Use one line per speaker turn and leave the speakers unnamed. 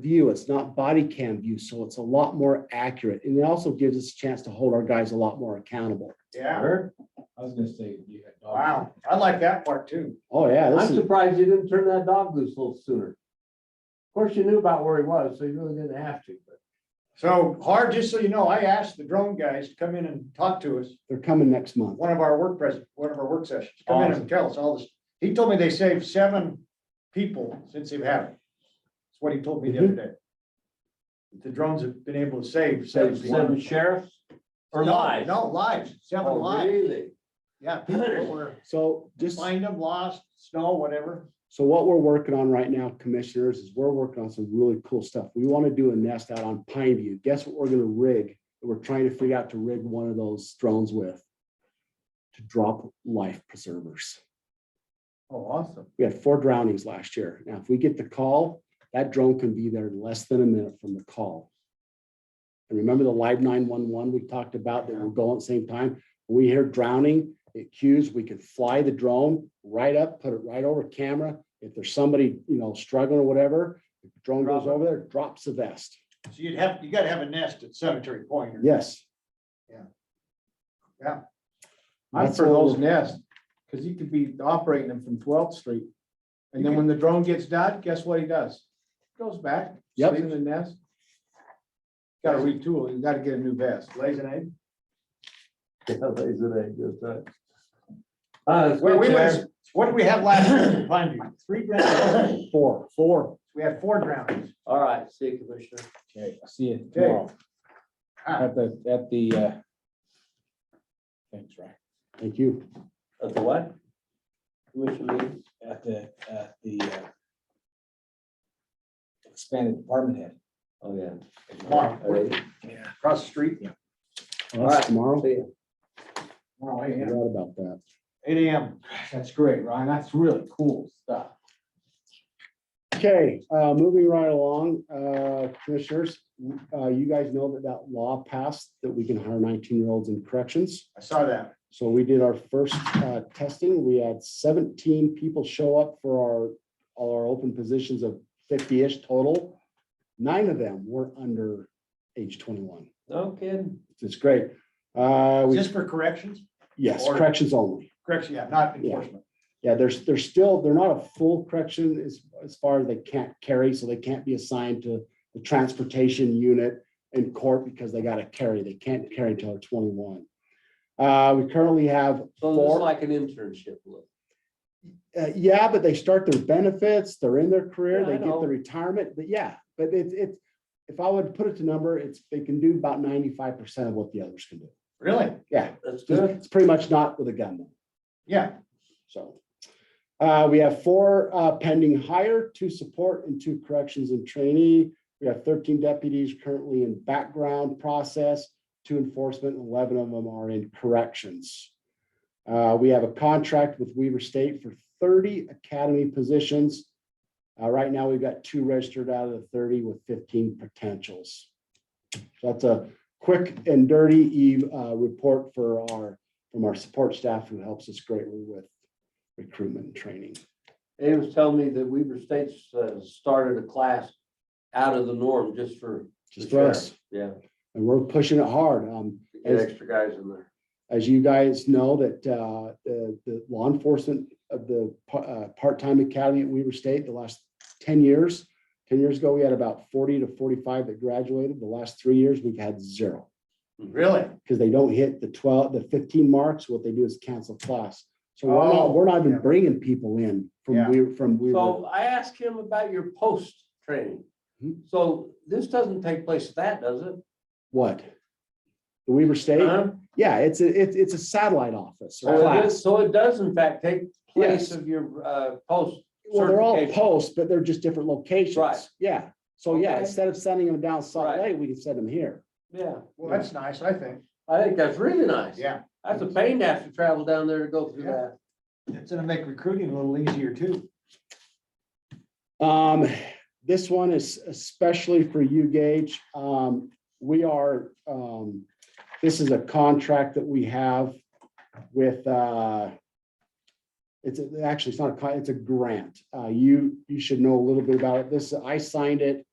view. It's not body cam view, so it's a lot more accurate. And it also gives us a chance to hold our guys a lot more accountable.
Yeah,
Eric? I was gonna say you had dogs.
wow, I like that part too.
Oh, yeah,
I'm
this is,
surprised you didn't turn that dog loose a little sooner. Of course, you knew about where he was, so you really didn't have to, but.
So hard, just so you know, I asked the drone guys to come in and talk to us,
they're coming next month.
one of our work pres, one of our work sessions, come in and tell us all this. He told me they saved seven people since they've had it. That's what he told me the other day. The drones have been able to save seven people.
sheriffs
No, No, lives, seven lives,
Oh, Really?
yeah, people that were
So just,
find them lost, snow, whatever.
so what we're working on right now, commissioners, is we're working on some really cool stuff. We want to do a nest out on Pine View. Guess what we're gonna rig? We're trying to figure out to rig one of those drones with to drop life preservers.
Oh, awesome.
We had four drownings last year. Now, if we get the call, that drone can be there in less than a minute from the call. And remember the live nine-one-one we talked about that will go at the same time? We hear drowning, it cues, we can fly the drone right up, put it right over camera. If there's somebody, you know, struggling or whatever, the drone goes
Drop it.
over there, drops the vest.
So you'd have, you gotta have a nest at Cemetery Point. or-
Yes.
I'm
That's
for
all.
those nests, because you could be operating them from twelfth street. And then when the drone gets done, guess what he does? Goes back,
Yep.
sleeps in the nest. Gotta retool, you gotta get a new vest.
Lays an egg.
Yeah, lays an egg, that's right. Uh, it's
Well,
good,
we
Sheriff.
was, what did we have last year in Pine View? Three drownings.
Four. Four.
We had four drownings.
All right, see you, Commissioner.
Okay, see you
tomorrow.
At the, at the, uh. Thanks, right,
Thank you.
At the what? Commissioner meeting?
at the, at the. uh, Expanded department head.
Oh, yeah.
Tomorrow.
All right.
Across the street.
That's tomorrow.
See you.
Wow,
I
eight
Forgot about that.
AM.
That's great, Ryan, that's really cool stuff.
Okay, uh, moving right along, uh, commissioners, uh, you guys know that that law passed that we can hire nineteen-year-olds in corrections.
I saw that.
So we did our first, uh, testing. We had seventeen people show up for our, all our open positions of fifty-ish total. Nine of them were under age twenty-one.
No kidding.
It's great. Uh, we,
Just for corrections?
yes, corrections only.
Correction, yeah, not enforcement.
Yeah, there's, they're still, they're not a full correction as, as far as they can't carry, so they can't be assigned to the transportation unit in court because they gotta carry, they can't carry till they're twenty-one. Uh, we currently have
So this is
four,
like an internship look.
uh, yeah, but they start their benefits, they're in their career,
Yeah, I
they get
know.
the retirement, but yeah, but it's, it's, if I would put it to number, it's, they can do about ninety-five percent of what the others can do.
Really?
Yeah,
That's good.
it's pretty much not with a gun though.
Yeah.
So. Uh, we have four uh, pending hire, two support and two corrections and trainee. We have thirteen deputies currently in background process, two enforcement, and eleven of them are in corrections. Uh, we have a contract with Weaver State for thirty academy positions. Uh, right now, we've got two registered out of the thirty with fifteen potentials. So That's a quick and dirty Eve uh, report for our, from our support staff who helps us greatly with recruitment and training.
Abe was telling me that Weaver State's uh, started a class out of the norm just for,
Just for us,
yeah,
and we're pushing it hard. Um,
to get extra guys in there.
as you guys know, that, uh, the, the law enforcement of the, pa- uh, part-time academy at Weaver State, the last ten years, ten years ago, we had about forty to forty-five that graduated. The last three years, we've had zero.
Really?
because they don't hit the twelve, the fifteen marks, what they do is cancel class. So we're not,
Oh.
we're not even
Yeah.
bringing people in from
Yeah.
we, from we.
So I asked him about your post training.
Hmm.
So this doesn't take place at that, does it?
What? The Weaver State?
Huh?
Yeah, it's a, it's, it's a satellite office or
So Uh-huh. Oh, it
class.
is- so it does in fact take place
Yes.
of your uh, post.
Well, they're all
certification.
posts, but they're just different locations.
Right.
Yeah. So yeah,
Okay.
instead of sending them down Salt
Right.
Lake, we can send them here.
Yeah,
Well, that's nice, I think.
I think that's really nice.
Yeah.
That's a pain to have to travel down there to go through
Yeah.
that.
It's gonna make recruiting a little easier too.
Um, this one is especially for you, Gage. Um, we are, um, this is a contract that we have with, uh, it's a- actually, it's not a, con- it's a grant. Uh, you, you should know a little bit about it. This, I signed it